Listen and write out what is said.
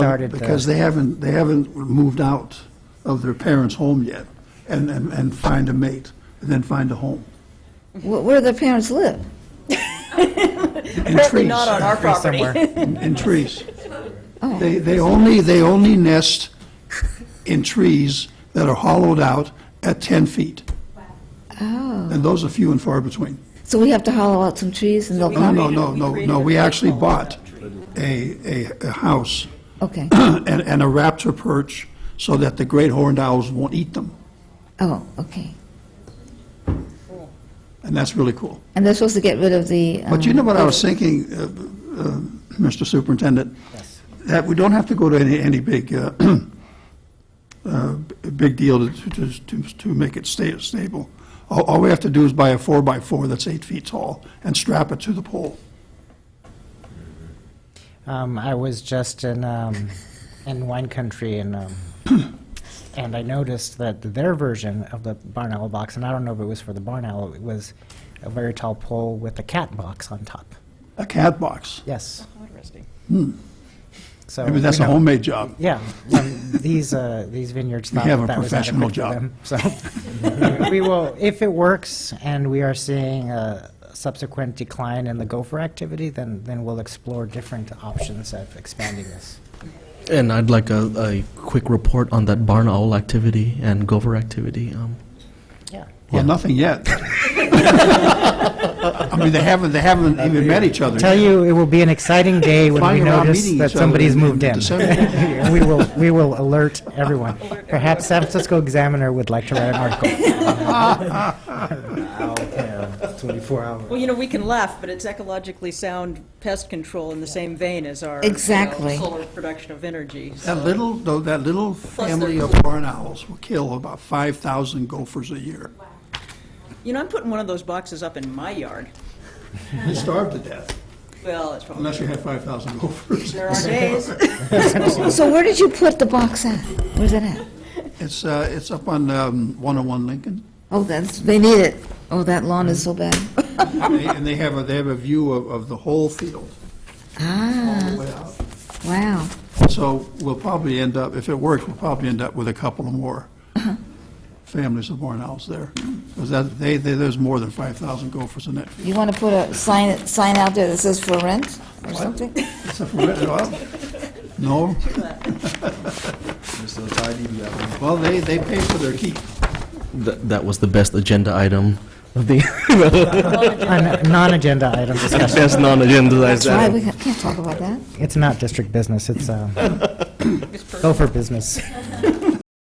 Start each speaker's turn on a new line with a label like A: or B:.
A: started
B: Because
A: the,
B: they haven't, they haven't moved out of their parents' home yet and, and, and find a mate and then find a home.
C: Wh- Where do their parents live?
B: And
D: Apparently
B: trees,
D: not on our Oh.
A: free
D: property.
A: somewhere.
B: and and trees. They, they only, they only nest in trees that are hollowed out at 10 feet.
D: Oh.
B: And those are few and far between.
C: So we have to hollow out some trees and they'll
B: No,
C: come?
B: no, no, no, no, we actually bought a, a, a house
C: Okay,
B: and, and a raptor perch so that the great horned owls won't eat them.
C: oh, okay.
B: And that's really cool.
C: And they're supposed to get rid of the...
B: But you
C: um,
B: know what I was thinking, uh, uh, Mr. Superintendent? That we don't have to go to any, any big, uh, uh, b- big deal to, to, to- to make it stay stable. All, all we have to do is buy a four-by-four that's eight feet tall and strap it to the pole.
A: Um, I was just in, um, in wine country and, um, and I noticed that their version of the barn owl box, and I don't know if it was for the barn owl, it was a very tall pole with a cat box on top.
B: A cat box.
A: Yes.
D: Interesting.
A: So
B: Hmm. Maybe that's
A: we
B: a
A: know-
B: homemade job.
A: Yeah, um, these, uh, these vineyards thought
B: have a
A: that that was
B: professional
A: adequate
B: job.
A: for them. So we will, if it works and we are seeing a subsequent decline in the gopher activity, then, then we'll explore different options of expanding this.
E: And I'd like a, a quick report on that barn owl activity and gopher activity. Um,
A: Yeah.
B: Well, nothing yet. I mean, they haven't, they haven't even met each other.
A: Tell
B: yet.
A: you, it will be an exciting day when we
B: Flying around
A: notice
B: meeting
A: that
B: each other
A: somebody's
B: in- in
A: moved in.
B: December.
A: We will, we will alert everyone. Perhaps San Francisco Examiner would like to write an article.
D: Well, you know, we can laugh, but it's ecologically sound pest control in the same vein as our. you know,
C: Exactly.
D: Solar production of energy. so-
B: That little, though, that little family of barn owls will kill about 5,000 gophers a year.
D: You know, I'm putting one of those boxes up in my yard.
B: They starve to death,
D: Well, it's probably,
B: unless you have 5,000 gophers.
D: there are days.
C: um, So where did you put the box at? Where's it at?
B: It's, uh, it's up on um, 101 Lincoln,
C: Oh, that's, they need it. Oh, that lawn is so bad.
B: and they- and they have, a they have a view of, of the whole field. all
D: Uh-huh.
B: the way out.
C: Ah, Wow.
B: So we'll probably end up, if it works, we'll probably end up with a couple of more
D: Uh-huh.
B: families of barn owls there. Because that, they, they- there's more than 5,000 gophers in that field.
C: You want to put a sign, sign out there that says for rent or something?
B: It's a permitted oil? No? Well, they, they pay for their keep.
E: th- that was the best agenda item of the
A: A Non-agenda item discussion.
E: best non-agendized
C: That's right,
E: item.
C: we can't talk about that.
A: It's not district business, it's, um, uh, gopher business.